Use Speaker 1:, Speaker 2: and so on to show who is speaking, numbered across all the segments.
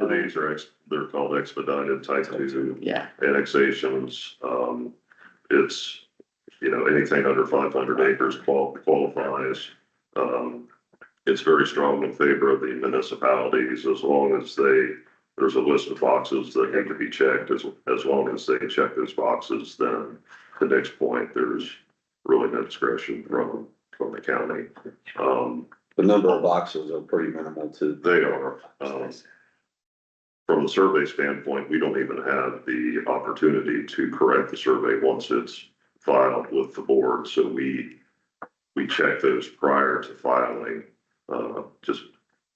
Speaker 1: These are, ex- they're called expedited type two
Speaker 2: Yeah,
Speaker 1: annexations. Um, it's, you know, anything under five hundred acres qual- qualifies. Um, it's very strong in favor of the municipalities as long as they, there's a list of boxes that need to be checked. As, as long as they check those boxes, then the next point, there's really no discretion from, from the county. Um,
Speaker 3: The number of boxes are pretty minimal to.
Speaker 1: they are, um, from the survey standpoint, we don't even have the opportunity to correct the survey once it's filed with the board, so we, we check those prior to filing, uh, just,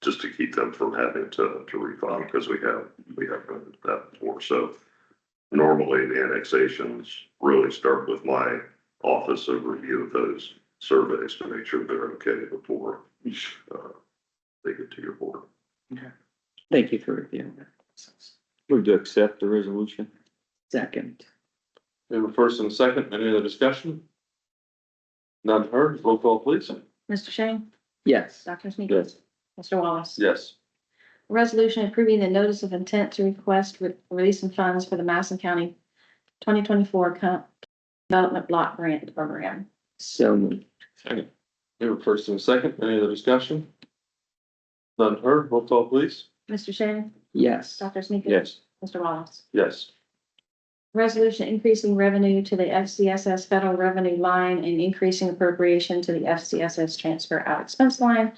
Speaker 1: just to keep them from having to, to refile, because we have, we have done that before, so normally the annexations really start with my office of review of those surveys to make sure they're okay before, uh, they get to your board.
Speaker 2: thank you for reviewing that.
Speaker 4: Move to accept the resolution.
Speaker 2: Second,
Speaker 4: We have a first and a second. Any other discussion? None heard. Roll call, please.
Speaker 5: Mr. Shane?
Speaker 2: yes,
Speaker 5: Dr. Sneakus?
Speaker 4: Yes.
Speaker 5: Mr. Wallace?
Speaker 4: Yes.
Speaker 5: Resolution approving the notice of intent to request re- release and funds for the Madison County twenty twenty-four Development Block Grant Program.
Speaker 2: so moved,
Speaker 4: Second. We have a first and a second. Any other discussion? None heard. Roll call, please.
Speaker 5: Mr. Shane?
Speaker 2: yes,
Speaker 5: Dr. Sneakus?
Speaker 4: Yes.
Speaker 5: Mr. Wallace?
Speaker 4: Yes.
Speaker 5: Resolution increasing revenue to the FCSS federal revenue line and increasing appropriation to the FCSS transfer out expense line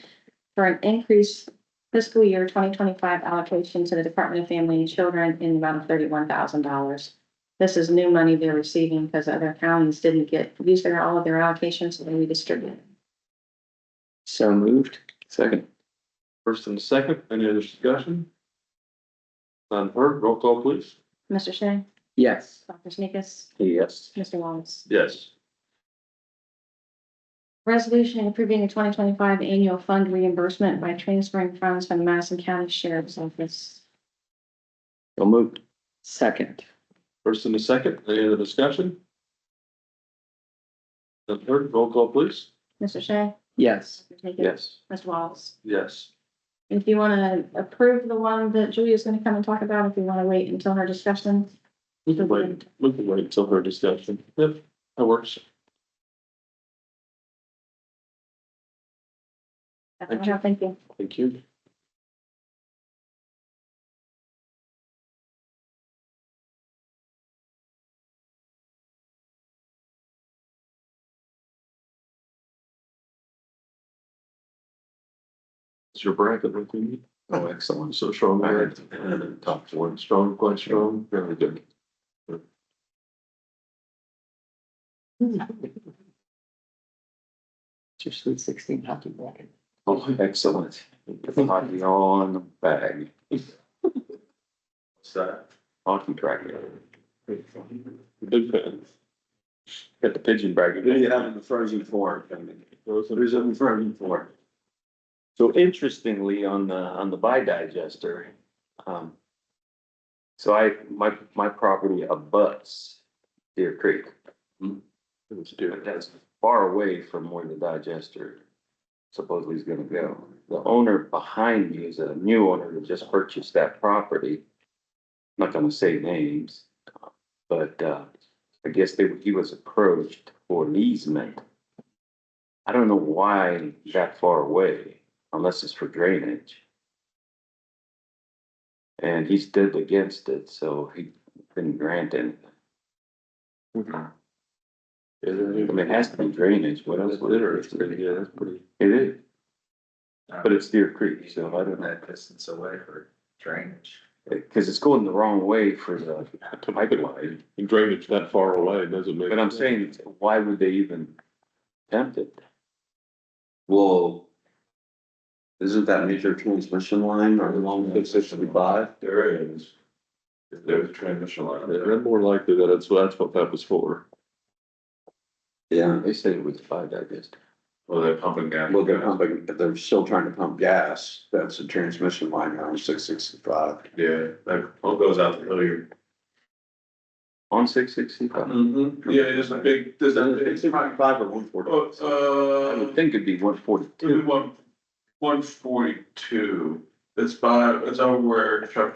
Speaker 5: for an increased fiscal year twenty twenty-five allocation to the Department of Family and Children in the amount of thirty-one thousand dollars. This is new money they're receiving because other counties didn't get, use their, all of their allocations, so they redistributed.
Speaker 2: so moved,
Speaker 4: Second. First and a second. Any other discussion? None heard. Roll call, please.
Speaker 5: Mr. Shea?
Speaker 2: yes,
Speaker 5: Dr. Sneakus?
Speaker 4: Yes.
Speaker 5: Mr. Wallace?
Speaker 4: Yes.
Speaker 5: Resolution approving the twenty twenty-five annual fund reimbursement by transferring funds from the Madison County Sheriff's Office.
Speaker 4: So moved.
Speaker 2: second,
Speaker 4: First and a second. Any other discussion? None heard. Roll call, please.
Speaker 5: Mr. Shea?
Speaker 2: yes,
Speaker 4: Yes.
Speaker 5: Mr. Wallace?
Speaker 4: Yes.
Speaker 5: If you wanna approve the one that Julia's gonna come and talk about, if you wanna wait until her discussion.
Speaker 4: We can wait, we can wait until her discussion. Yep, that works. Thank you.
Speaker 5: Thank you.
Speaker 4: Thank you. It's your bracket, like we need.
Speaker 3: Oh, excellent.
Speaker 4: So strong,
Speaker 3: Alright,
Speaker 4: right?
Speaker 3: and then top one.
Speaker 4: Strong, quite strong, very good.
Speaker 2: just Sweet Sixteen hockey bracket.
Speaker 4: Oh,
Speaker 3: Excellent. Hockey on the bag.
Speaker 4: what's that?
Speaker 3: Hockey bracket.
Speaker 4: Big fan.
Speaker 3: Got the pigeon bracket. Yeah, in the frozen four. Who's in the frozen four?
Speaker 6: So interestingly, on the, on the bi-digester, um. So I, my, my property abuts Deer Creek.
Speaker 4: Hmm. Let's do
Speaker 6: but
Speaker 4: it.
Speaker 6: That's far away from where the digester supposedly is gonna go. The owner behind me is a new owner that just purchased that property. I'm Not gonna say names, but, uh, I guess they, he was approached for an easement. I don't know why that far away, unless it's for drainage. And he's dead against it, so he didn't grant it.
Speaker 4: Is
Speaker 6: I mean, it has to be drainage, what else would
Speaker 4: Litter, it's
Speaker 6: it
Speaker 4: pretty
Speaker 6: be?
Speaker 4: good, that's pretty.
Speaker 6: It is, but it's Deer Creek, so I don't know,
Speaker 3: That distance away for drainage.
Speaker 6: because it's going the wrong way for the pipeline.
Speaker 4: And drainage that far away doesn't make.
Speaker 6: But I'm saying, why would they even attempt it?
Speaker 3: Well, isn't that major transmission line or along six sixty-five?
Speaker 4: There is. There's a transmission line. They're more likely that it's, that's what that was for.
Speaker 3: Yeah,
Speaker 6: They said it was five digest.
Speaker 4: Well, they're pumping gas.
Speaker 3: well, they're pumping, they're still trying to pump gas. That's a transmission line on six sixty-five.
Speaker 4: Yeah, that all goes out the hillier.
Speaker 6: On six sixty-five,
Speaker 4: Mm-hmm, yeah, there's a big, there's
Speaker 3: It's around five or one forty.
Speaker 6: I would
Speaker 4: uh,
Speaker 6: think it'd be one forty-two.
Speaker 4: one, one forty-two. It's by, it's over where Chuck